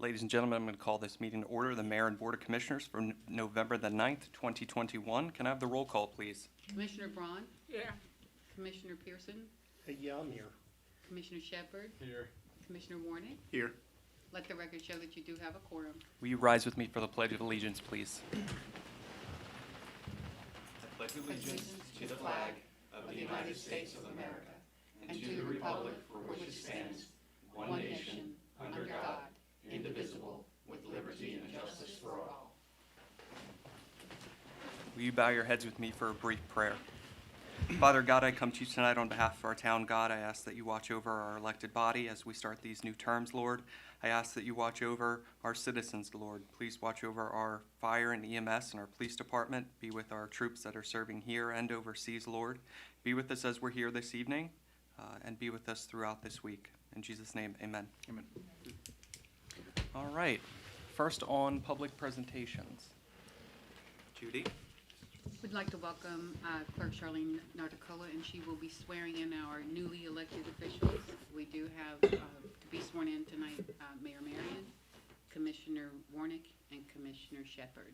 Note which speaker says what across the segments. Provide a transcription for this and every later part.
Speaker 1: Ladies and gentlemen, I'm going to call this meeting to order, the Mayor and Board of Commissioners for N- November the 9th, 2021. Can I have the roll call, please?
Speaker 2: Commissioner Braun,
Speaker 3: Yeah.
Speaker 2: Commissioner Pearson,
Speaker 3: Yeah, I'm here.
Speaker 2: Commissioner Shepard,
Speaker 3: Here.
Speaker 2: Commissioner Warnick.
Speaker 3: Here.
Speaker 2: Let the record show that you do have a quorum.
Speaker 1: Will you rise with me for the Pledge of Allegiance, please?
Speaker 2: allegiance to the flag of the United States of America and to the republic for which it stands, one nation, under God, indivisible, with liberty and justice for all.
Speaker 1: Will you bow your heads with me for a brief prayer? Father God, I come to you tonight on behalf of our town, God. I ask that you watch over our elected body as we start these new terms, Lord. I ask that you watch over our citizens, Lord. Please watch over our fire and EMS and our police department. Be with our troops that are serving here and overseas, Lord. Be with us as we're here this evening uh, and be with us throughout this week. In Jesus' name, amen. Amen. All right. First on public presentations. Judy?
Speaker 2: We'd like to welcome uh, Clerk Charlene Nardicola, and she will be swearing in our newly elected officials. We do have uh, to be sworn in tonight, uh, Mayor Marion, Commissioner Warnick, and Commissioner Shepard.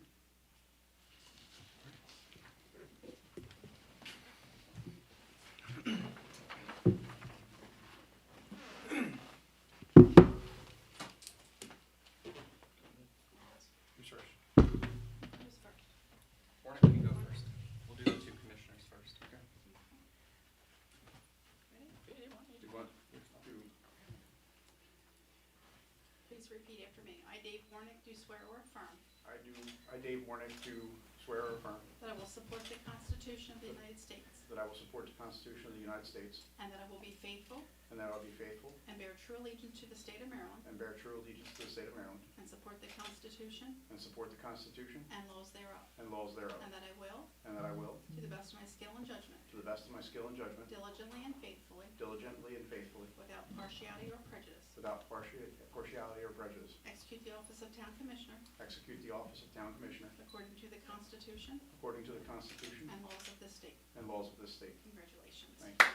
Speaker 1: Who's first? Warren, you go first. We'll do the two commissioners first, okay? Do what?
Speaker 4: Please repeat after me. I, Dave Warnick, do swear or affirm
Speaker 5: I do, I, Dave Warnick, do swear or affirm
Speaker 4: that I will support the Constitution of the United States
Speaker 5: that I will support the Constitution of the United States
Speaker 4: and that I will be faithful
Speaker 5: and that I will be faithful
Speaker 4: and bear true allegiance to the state of Maryland
Speaker 5: and bear true allegiance to the state of Maryland
Speaker 4: and support the Constitution
Speaker 5: and support the Constitution
Speaker 4: and laws thereof,
Speaker 5: and laws thereof,
Speaker 4: and that I will,
Speaker 5: and that I will,
Speaker 4: to the best of my skill and judgment,
Speaker 5: to the best of my skill and judgment,
Speaker 4: diligently and faithfully,
Speaker 5: diligently and faithfully,
Speaker 4: without partiality or prejudice,
Speaker 5: without partia- partiality or prejudice,
Speaker 4: execute the office of Town Commissioner
Speaker 5: execute the office of Town Commissioner
Speaker 4: according to the Constitution
Speaker 5: according to the Constitution
Speaker 4: and laws of this state.
Speaker 5: and laws of this state.
Speaker 4: Congratulations.
Speaker 5: Thank you.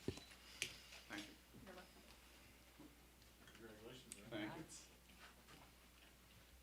Speaker 5: Thank you.
Speaker 4: You're welcome.
Speaker 5: Thank you.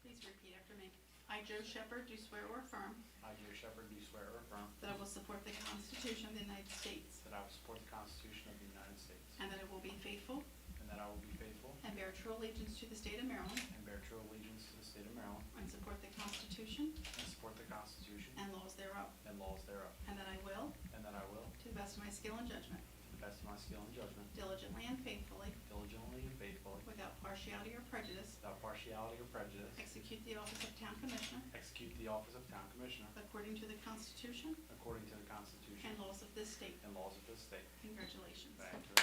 Speaker 4: Please repeat after me. I, Joe Shepherd, do swear or affirm
Speaker 5: I, Joe Shepherd, do swear or affirm
Speaker 4: That I will support the Constitution of the United States.
Speaker 5: that I will support the Constitution of the United States
Speaker 4: And that I will be faithful
Speaker 5: and that I will be faithful
Speaker 4: and bear true allegiance to the state of Maryland.
Speaker 5: and bear true allegiance to the state of Maryland
Speaker 4: And support the Constitution
Speaker 5: and support the Constitution
Speaker 4: and laws thereof.
Speaker 5: and laws thereof,
Speaker 4: And that I will,
Speaker 5: and that I will,
Speaker 4: to the best of my skill and judgment,
Speaker 5: to the best of my skill and judgment,
Speaker 4: diligently and faithfully,
Speaker 5: diligently and faithfully,
Speaker 4: without partiality or prejudice,
Speaker 5: without partiality or prejudice,
Speaker 4: execute the office of Town Commissioner
Speaker 5: execute the office of Town Commissioner
Speaker 4: according to the Constitution
Speaker 5: according to the Constitution
Speaker 4: and laws of this state.
Speaker 5: and laws of this state.
Speaker 4: Congratulations.
Speaker 5: Thank you.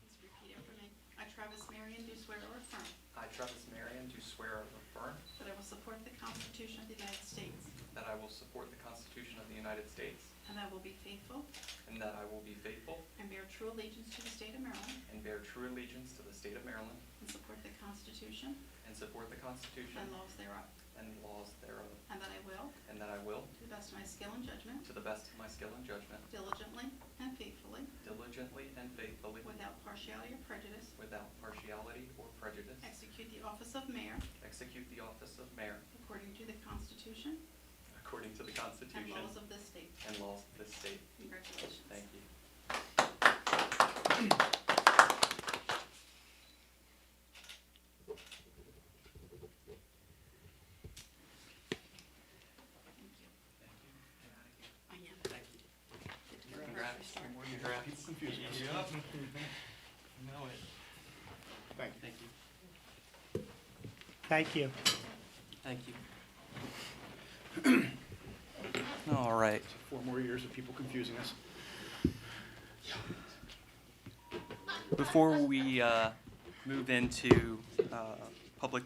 Speaker 4: Please repeat after me. I, Travis Marion, do swear or affirm
Speaker 1: I, Travis Marion, do swear or affirm
Speaker 4: that I will support the Constitution of the United States.
Speaker 1: that I will support the Constitution of the United States
Speaker 4: And that I will be faithful
Speaker 1: and that I will be faithful
Speaker 4: and bear true allegiance to the state of Maryland.
Speaker 1: and bear true allegiance to the state of Maryland
Speaker 4: And support the Constitution
Speaker 1: and support the Constitution
Speaker 4: and laws thereof.
Speaker 1: and laws thereof,
Speaker 4: And that I will,
Speaker 1: and that I will,
Speaker 4: to the best of my skill and judgment,
Speaker 1: to the best of my skill and judgment,
Speaker 4: diligently and faithfully,
Speaker 1: diligently and faithfully,
Speaker 4: without partiality or prejudice,
Speaker 1: without partiality or prejudice,
Speaker 4: execute the office of mayor
Speaker 1: execute the office of mayor
Speaker 4: according to the Constitution
Speaker 1: according to the
Speaker 4: and
Speaker 1: Constitution
Speaker 4: laws of this state.
Speaker 1: and laws of this state.
Speaker 4: Congratulations.
Speaker 1: Thank you. Thank you.
Speaker 4: Thank you. I am.
Speaker 1: Thank you.
Speaker 4: Get to go grocery
Speaker 1: Congrats.
Speaker 4: store.
Speaker 1: Congrats. It's confusing. Yep. Know it.
Speaker 5: Thank you.
Speaker 1: Thank you.
Speaker 3: Thank you.
Speaker 1: Thank you. All right.
Speaker 5: Four more years of people confusing us.
Speaker 1: Before we uh, move into uh, public